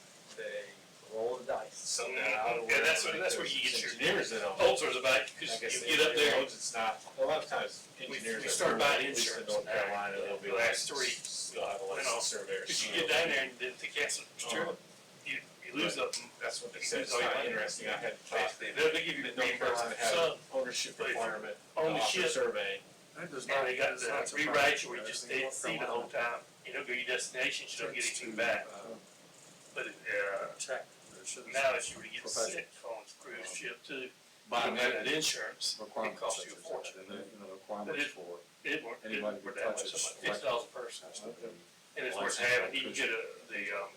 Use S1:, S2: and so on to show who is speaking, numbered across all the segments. S1: something
S2: Yeah,
S1: out of
S2: yeah,
S1: where.
S2: that's where- that's where you get your-
S1: Engineers that don't.
S2: Ulcers about,
S1: I
S2: because
S1: guess
S2: you get up
S1: everybody
S2: there,
S1: knows It's not, a lot of times
S2: we,
S1: engineers.
S2: we
S1: are
S2: start
S1: poor,
S2: buying
S1: at least in
S2: insurance.
S1: North Carolina, they'll be
S2: The
S1: like.
S2: last three,
S1: You'll have a licensed surveyor.
S2: because you get down there and then the cats,
S1: Uh-huh.
S2: you, you lose up.
S1: That's what they
S2: You
S1: said, it's
S2: lose all your
S1: not
S2: money.
S1: interesting, I had thought
S2: Basically, they, they give you
S1: that North Carolina
S2: reimbursement,
S1: had
S2: so,
S1: an ownership
S2: but if you're
S1: requirement, to
S2: on the
S1: offer
S2: ship,
S1: survey.
S3: That does
S2: And they got
S3: that's not
S2: the
S3: surprising.
S2: rewrite you where you
S3: I
S2: just
S3: think
S2: didn't
S3: North
S2: see the whole time.
S3: Carolina
S2: You don't go to your destination, you don't get
S3: tends
S2: anything
S3: to,
S2: back.
S3: uh,
S2: But, uh,
S3: Check. There should be
S2: now if you were to get
S3: Professional.
S2: sick on a cruise ship to
S3: um, Buy
S2: buy
S3: that.
S2: that insurance,
S3: some
S2: it
S3: requirements
S2: costs
S3: such
S2: you a
S3: as that,
S2: fortune.
S3: and the, you know, the requirements for
S2: It weren't, it
S3: anybody
S2: weren't
S3: who
S2: that much,
S3: touches
S2: it's fifty dollars per person.
S3: has to be.
S2: And it's worth having, you can get a, the, um,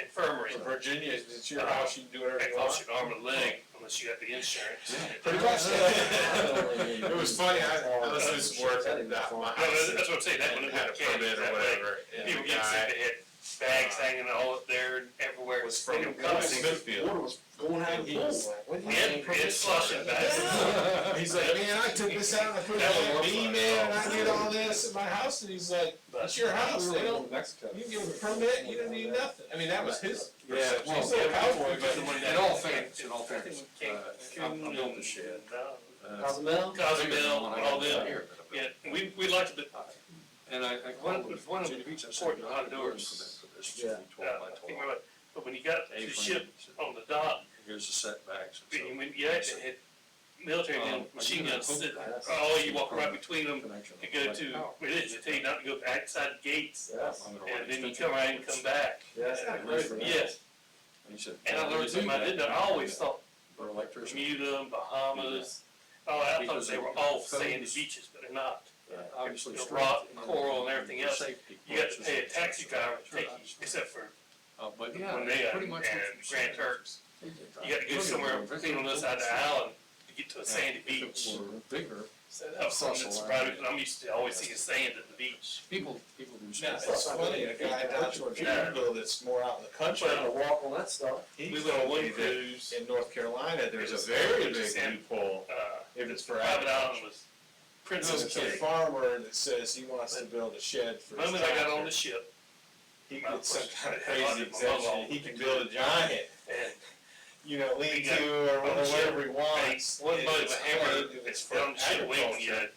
S2: infirmary,
S1: In Virginia, it's your
S2: Uh,
S1: house, you can do whatever
S2: that
S1: you
S2: costs
S1: want.
S2: you an arm and a leg unless you got the insurance.
S1: Pretty much. It was funny, I, I was doing some work at that, my
S2: No,
S1: house,
S2: that's what I'm saying, that
S1: and it
S2: would
S1: had
S2: have
S1: a permit or whatever, and
S2: People
S1: the guy
S2: get sick, they had bags hanging all up there and everywhere.
S1: was from
S2: They don't come in.
S1: Smithfield.
S3: Water was going out of the pool.
S2: It, it's flushing back.
S1: He's like, man, I took this out and I put it in that beam, man, and I did all this at my house, and he's like, it's your house, they don't,
S3: Mexico.
S1: you can give a permit, you don't need nothing. I mean, that was his
S3: Yeah,
S1: perception,
S3: well,
S1: he's still a cowboy, but.
S3: In all fairness, in all fairness, uh, I I built the shed. uh,
S4: Cozumel?
S3: bigger than
S2: Cozumel
S3: one I
S2: and all
S3: got down
S2: them,
S3: here that I built.
S2: yeah, we, we liked it,
S3: And I, I
S2: One-
S3: called them.
S2: there's one in
S3: Virginia Beach, I said,
S2: Fort
S3: "You have to do a
S2: Honduras.
S3: permit for this. It
S4: Yeah.
S3: should be
S2: but, uh,
S3: 12 by
S2: I
S3: 12."
S2: can't remember, but when you got to the ship
S3: A-frame, he said,
S2: on the dock,
S3: Here's the setbacks. and so-
S2: when, when you actually had military men,
S3: Um,
S2: machine
S3: I
S2: guns,
S3: think
S2: sitting-
S3: that's-
S2: oh, you walk right between them
S3: Connection.
S2: to go to,
S3: Oh.
S2: where it is, they tell you not to go outside gates,
S4: Yes.
S3: I'm gonna write
S2: and then you
S3: extension
S2: come right and
S3: reports.
S2: come back.
S4: Yes.
S2: Yes,
S3: And he said.
S2: and I
S3: "Well, we
S2: learned
S3: do
S2: something I
S3: that.
S2: didn't know, I always thought
S3: For electricity.
S2: Bermuda, Bahamas, oh, I thought they were all sandy beaches, but they're not.
S3: Obviously.
S2: the
S3: it's
S2: rock,
S3: strength
S2: coral and everything
S3: for
S2: else,
S3: safety
S2: You got to
S3: purposes,
S2: pay a
S3: et
S2: taxi
S3: cetera.
S2: driver to
S3: Sure,
S2: take you,
S3: obviously.
S2: except for
S3: Uh, but.
S4: Yeah,
S2: when they, uh,
S4: pretty
S2: and
S4: much what you're
S2: Grand
S4: saying.
S2: Turks, you got to go somewhere between on the other side of the island to get to a sandy beach.
S3: If it were bigger,
S2: So that was something that surprised me, 'cause I'm used to always seeing sand at the beach.
S3: people, people do.
S1: Now,
S3: stuff.
S1: it's funny, a guy down in Jacksonville that's more out in the country,
S2: Well,
S4: walk on that stuff.
S1: he
S2: We
S1: told
S2: went on
S1: me
S2: one
S1: that
S2: cruise,
S1: in North Carolina, there's a very big loophole
S2: uh,
S1: if it's for
S2: private
S1: agriculture.
S2: island was
S1: There's a
S2: Princess Kitty.
S1: farmer that says he wants to build a shed for
S2: The
S1: his
S2: moment I got on
S1: tractor.
S2: the ship
S1: He gets some kind of crazy exemption, he can build a giant,
S2: and
S1: you know, lean to or
S2: one ship,
S1: whatever he
S2: hey,
S1: wants.
S2: one
S1: and
S2: bite of a
S1: it's
S2: hammer,
S1: hard if
S2: it's
S1: for
S2: down the ship wing
S1: agriculture,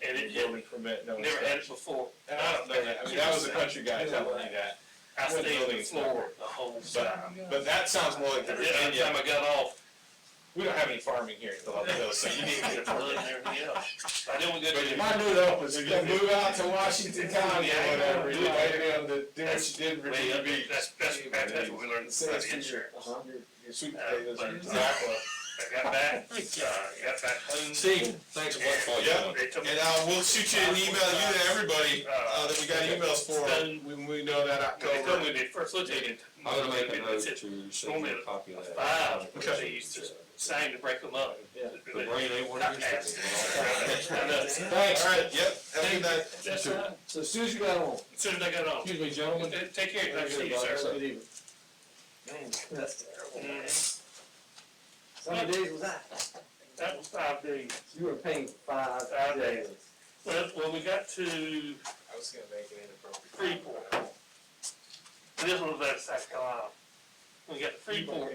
S2: yet, and it hit,
S1: Building permit, no
S2: never had it
S1: inspection.
S2: before.
S1: And I don't know that, I mean, that was a country guy telling me that,
S2: I
S1: Wouldn't
S2: stayed on
S1: really
S2: the floor the whole time.
S1: but, but that sounds more like the
S2: The only time
S1: Virginia,
S2: I got off,
S1: we don't have any farming here in Philadelphia, so you need to get a permit.
S2: and everything else. I didn't want to go
S1: But
S2: to
S1: you
S2: the-
S1: might do that, was you move out to Washington County or whatever, you might be able to do what you did in
S2: way
S1: Virginia
S2: up,
S1: Beach.
S2: that's, that's, that's what we learned about the insurance.
S4: Uh-huh.
S1: Your sweet
S2: Uh,
S1: potatoes
S2: but-
S1: are exactly.
S2: I got back, uh, got back home.
S3: Steve, thanks a lot for all
S1: Yeah.
S3: you're doing.
S2: They took me
S1: And uh, we'll shoot you an email, you and everybody, uh, that we got emails for, when we know that
S2: They told
S1: October.
S2: me they first looked at it.
S3: I'm gonna make a
S2: They
S3: note
S2: said,
S3: to send you a copy of that.
S2: Five, because they used to sign to break them up.
S4: Yeah.
S3: The brain ain't what it used to be.
S2: I know.
S4: Thanks.
S1: Alright, yep, have a good night.
S2: That's all right.
S4: So as soon as you got on.
S2: As soon as I got on.
S3: Excuse me, gentlemen.
S2: Take care, nice to see you, sir.
S4: Good evening. Man, that's terrible.
S2: Mm-hmm.
S4: How many days was that?
S2: That was five days.
S4: You were paying five
S2: Five
S4: days.
S2: Well, when we got to
S1: I was gonna make it inappropriate.
S2: Freeport, this one was out of South Carolina. When we got to Freeport,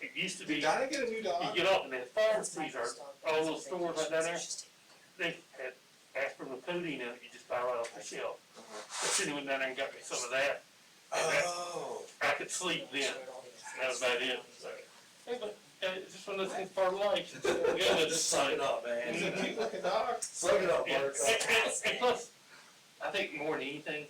S2: it used to be,
S1: Did
S2: you
S1: Donna get a new dog?
S2: get off and then pharmacies are,
S5: All those stores right down there?
S2: they had aspirin and codeine in it, you just buy right off the shelf.
S4: Uh-huh.
S2: I should have went down there and got me some of that.
S1: Oh.
S2: I could sleep then. That was about it. So, hey, but, uh, it's just one of those things part of life. We gotta just suck it up.
S1: He's a cute looking dog.
S4: Suck it up,
S2: And, and,
S4: Buttercup.
S2: and plus, I think more than anything,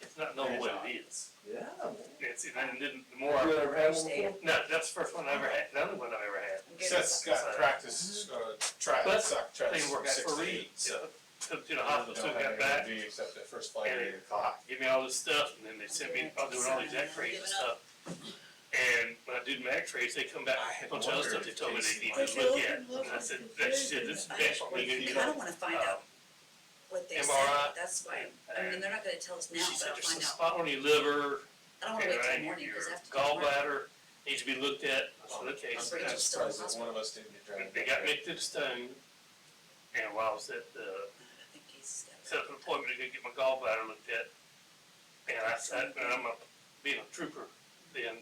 S2: it's not knowing what it is.
S4: Yeah, man.
S2: It's, and then the more,
S4: You
S2: I-
S4: ever had one before?
S2: no, that's the first one I ever had, the only one I ever had.
S1: Seth's got practice, uh, try,
S2: But
S1: suck, try.
S2: They work out for
S1: sixteen,
S2: Reed,
S1: so-
S2: took to the hospital, took that back,
S1: Except that first flight
S2: And
S1: at eight o'clock.
S2: give me all this stuff, and then they sent me, I'm doing all these x-rays and stuff. And when I did my x-rays, they come back,
S1: I had
S2: a bunch of other
S1: wondered
S2: stuff they told me
S1: if
S2: they
S1: they
S2: needed to look at. And I said, that's it, this is best we're gonna
S5: I
S2: get.
S5: don't wanna find out what they said,
S2: MRI.
S5: that's why, I mean, they're not gonna tell us now,
S2: She
S5: but
S2: said,
S5: I'll
S2: there's a
S5: find out.
S2: spot on your liver,
S5: I don't
S2: and
S5: wanna wait
S2: I
S5: till
S2: need
S5: morning,
S2: your
S5: cause after. tomorrow-
S2: gallbladder needs to be looked at. I said, okay,
S1: I'm
S2: so
S5: Rachel's
S1: kinda
S2: that's-
S5: still in
S1: surprised that one of us didn't get dragged.
S2: they got me to the stone. And while I was at the,
S5: I think he's got it.
S2: set up an appointment to go get my gallbladder looked at. And I said, and I'm a, being a trooper then,